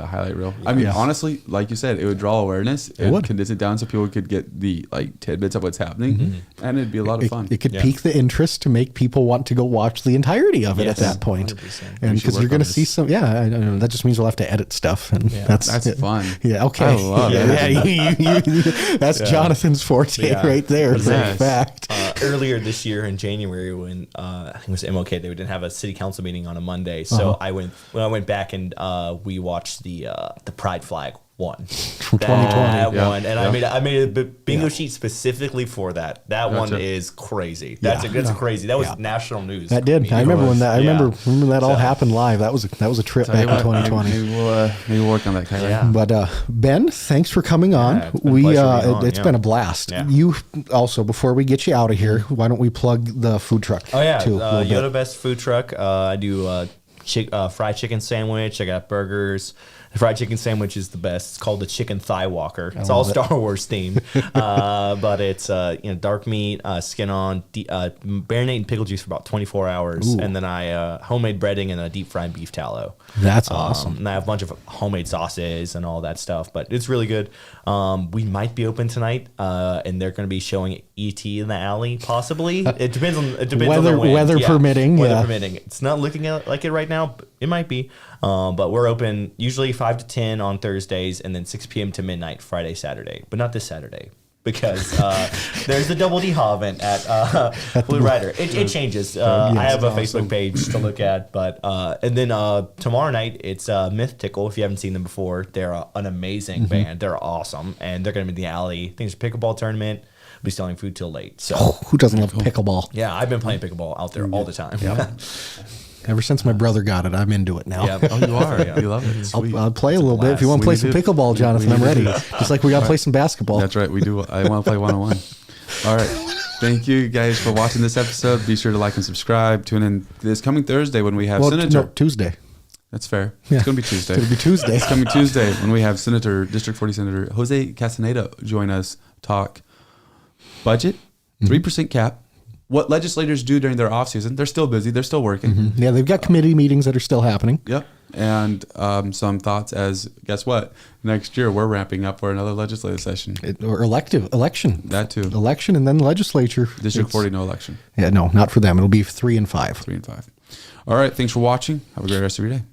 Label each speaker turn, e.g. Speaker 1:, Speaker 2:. Speaker 1: highlight reel. I mean,
Speaker 2: Yes.
Speaker 1: honestly, like you said, it would draw awareness. It,
Speaker 2: would.
Speaker 1: would condense it down so people could get the like tidbits of what's happening, and it'd be a lot of
Speaker 2: Mm-hmm. It,
Speaker 1: fun.
Speaker 2: it could
Speaker 3: Yeah.
Speaker 2: pick the interest to make people want to go watch the entirety of it
Speaker 3: Yes,
Speaker 2: at that point.
Speaker 3: 100%.
Speaker 2: And
Speaker 1: We should
Speaker 2: because you're
Speaker 1: work
Speaker 2: going
Speaker 1: on
Speaker 2: to see
Speaker 1: this.
Speaker 2: some, yeah, I, I know, that just means we'll have to edit stuff, and that's
Speaker 1: That's
Speaker 2: it.
Speaker 1: fun.
Speaker 2: Yeah, okay,
Speaker 1: I love
Speaker 2: yeah,
Speaker 1: it.
Speaker 2: you- you- you- that's Jonathan's forte
Speaker 3: Yeah.
Speaker 2: right there,
Speaker 3: That's
Speaker 2: for a
Speaker 1: nice.
Speaker 2: fact.
Speaker 3: uh, earlier this year in January when uh, I think it was MLK, they didn't have a city council meeting on a Monday. So I went when I went back and uh, we watched the uh, the Pride Flag one. From
Speaker 2: 2020,
Speaker 1: yeah,
Speaker 3: one, and I
Speaker 1: yeah.
Speaker 3: made I made a b- bingo sheet specifically for that. That one is crazy. That's a, that's crazy. That was national news.
Speaker 2: That did. I
Speaker 3: mean,
Speaker 2: remember when
Speaker 1: was-
Speaker 2: that. I remember
Speaker 3: yeah.
Speaker 2: remember that all
Speaker 3: So-
Speaker 2: happened live. That was a, that was a trip back in
Speaker 1: Maybe-
Speaker 2: 2020.
Speaker 1: Maybe we'll, uh, maybe we'll work on that, Kyler.
Speaker 3: Yeah.
Speaker 2: But uh, Ben, thanks for coming on.
Speaker 3: it's been a
Speaker 2: we
Speaker 3: pleasure
Speaker 2: uh,
Speaker 3: being
Speaker 2: it,
Speaker 3: on,
Speaker 2: has
Speaker 3: yeah.
Speaker 2: been a blast.
Speaker 3: Yeah.
Speaker 2: You also before we get you out of here, why don't we plug the food truck?
Speaker 3: Oh yeah,
Speaker 2: too, a
Speaker 3: uh,
Speaker 2: little
Speaker 3: Yoda
Speaker 2: bit.
Speaker 3: Best food truck. Uh, I do uh, chick, uh, fried chicken sandwich. I got burgers. The fried chicken sandwich is the best. It's called the Chicken Thigh Walker. It's all
Speaker 2: love it.
Speaker 3: Star Wars themed, uh, but it's uh, you know dark meat, uh, skin on, de- uh, marinade and pickle juice for about 24 hours,
Speaker 2: Ooh.
Speaker 3: and then I uh, homemade breading and a deep fried beef tallow.
Speaker 2: That's
Speaker 3: Um,
Speaker 2: awesome.
Speaker 3: and I have a bunch of homemade sauces and all that stuff, but it's really good. Um, we might be open tonight, uh, and they're going to be showing ET in the alley, possibly.
Speaker 2: Uh,
Speaker 3: It depends on it depends on
Speaker 2: Weather-
Speaker 3: the wind.
Speaker 2: weather permitting,
Speaker 3: Weather
Speaker 2: yeah.
Speaker 3: permitting. It's not looking at- like it right now. But it might be, um, but we're open usually five to ten on Thursdays, and then six p.m. to midnight Friday, Saturday, but not this Saturday. Because uh, there's the double D Haw event at uh, Blue Rider. It, it changes.
Speaker 2: Oh,
Speaker 3: Uh, I have a Facebook page to look at, but uh, and then uh, tomorrow night it's uh, Myth Tickle. If you haven't seen them before, they're uh, an
Speaker 2: Mm-hmm.
Speaker 3: amazing band. They're awesome, and they're going to be in the alley. I think there's a pickleball tournament. Be selling food till late. So
Speaker 2: Oh, who doesn't love pickleball?
Speaker 3: yeah, I've been playing pickleball out there all the time.
Speaker 2: Ever since my brother got it, I'm into it now.
Speaker 3: yeah.
Speaker 1: Oh, you are. You love it. Sweet.
Speaker 2: I'll, I'll play a little bit. If you want to play
Speaker 1: We
Speaker 2: some
Speaker 1: do-
Speaker 2: pickleball,
Speaker 1: we-
Speaker 2: Jonathan,
Speaker 1: we
Speaker 2: I'm
Speaker 1: do
Speaker 2: ready.
Speaker 1: that.
Speaker 2: Just like we got to play some basketball.
Speaker 1: That's right. We do. I want to play one on one. All right. Thank you guys for watching this episode. Be sure to like and subscribe. Tune in this coming Thursday when we have
Speaker 2: Well, t-
Speaker 1: Senator.
Speaker 2: no, Tuesday.
Speaker 1: That's fair.
Speaker 2: Yeah.
Speaker 1: It's going to be Tuesday.
Speaker 2: It'll be Tuesday.
Speaker 1: It's coming Tuesday when we have Senator, District 40 Senator Jose Castaneda join us talk budget, 3% cap, what legislators do during their offseason. They're still busy, they're still working.
Speaker 2: Mm-hmm. Yeah, they've got committee meetings that are still happening.
Speaker 1: Yep. And um, some thoughts as guess what? Next year, we're ramping up for another legislative session.
Speaker 2: It, or elective election.
Speaker 1: That too.
Speaker 2: Election and then legislature.
Speaker 1: District
Speaker 2: It's-
Speaker 1: 40, no election,
Speaker 2: Yeah, no, not for them. It'll be three and five.
Speaker 1: three and five. All right. Thanks for watching. Have a great rest of your day.